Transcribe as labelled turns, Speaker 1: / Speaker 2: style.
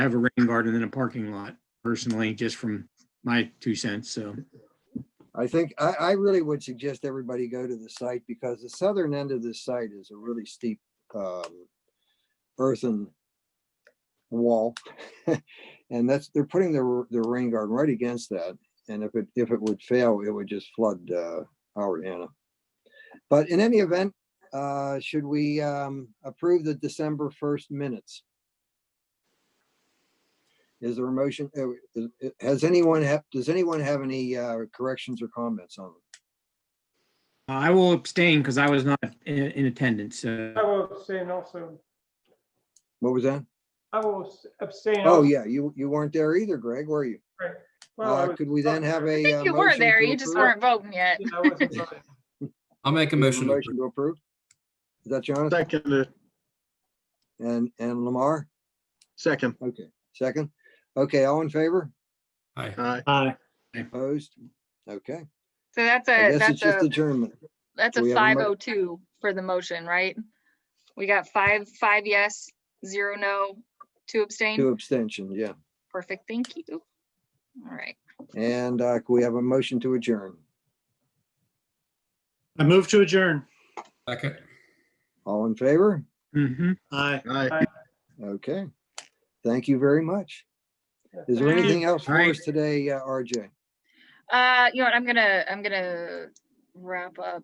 Speaker 1: have a rain garden in a parking lot personally, just from my two cents. So
Speaker 2: I think, I, I really would suggest everybody go to the site because the southern end of this site is a really steep, um, earthen wall. And that's, they're putting the, the rain garden right against that. And if it, if it would fail, it would just flood, uh, our Anna. But in any event, uh, should we, um, approve the December first minutes? Is there a motion? uh, is- is- Has anyone, have? does anyone have any uh, corrections or comments on them?
Speaker 1: uh, I will abstain because I was not in, in attendance. So
Speaker 3: I will abstain also.
Speaker 2: What was that?
Speaker 3: I will abstain.
Speaker 2: Oh, yeah, you, you weren't there either, Greg, were you?
Speaker 3: Well, I
Speaker 2: Uh,
Speaker 3: was-
Speaker 2: Could we then have a? uh,
Speaker 4: I think you were there, you just weren't voting yet.
Speaker 3: Yeah, I wasn't voting.
Speaker 5: I'll make a motion. to
Speaker 2: Motion to approve? Is that Jonathan
Speaker 6: Second, uh,
Speaker 2: and, and Lamar?
Speaker 6: second.
Speaker 2: Okay, second. Okay, all in favor?
Speaker 5: approve. Aye.
Speaker 6: Aye.
Speaker 3: Aye.
Speaker 2: Opposed? Okay,
Speaker 4: So that's
Speaker 2: I
Speaker 4: a,
Speaker 2: guess it's
Speaker 4: that's
Speaker 2: just
Speaker 4: a,
Speaker 2: adjournment.
Speaker 4: that's
Speaker 2: we
Speaker 4: a
Speaker 2: have a
Speaker 4: five
Speaker 2: mo-
Speaker 4: oh two for the motion, right? We got five, five yes, zero no, two
Speaker 2: Two
Speaker 4: abstain.
Speaker 2: abstentions, yeah.
Speaker 4: Perfect, thank you. All right,
Speaker 2: And uh, can we have a motion to adjourn?
Speaker 7: I move to adjourn.
Speaker 5: Second.
Speaker 2: All in favor?
Speaker 1: mhm.
Speaker 7: Aye.
Speaker 6: Aye.
Speaker 2: Okay. Thank you very much. Is there
Speaker 4: Thank you.
Speaker 2: anything else for
Speaker 1: Alright.
Speaker 2: us today, uh, RJ?
Speaker 4: uh, you know what, I'm gonna, I'm gonna wrap up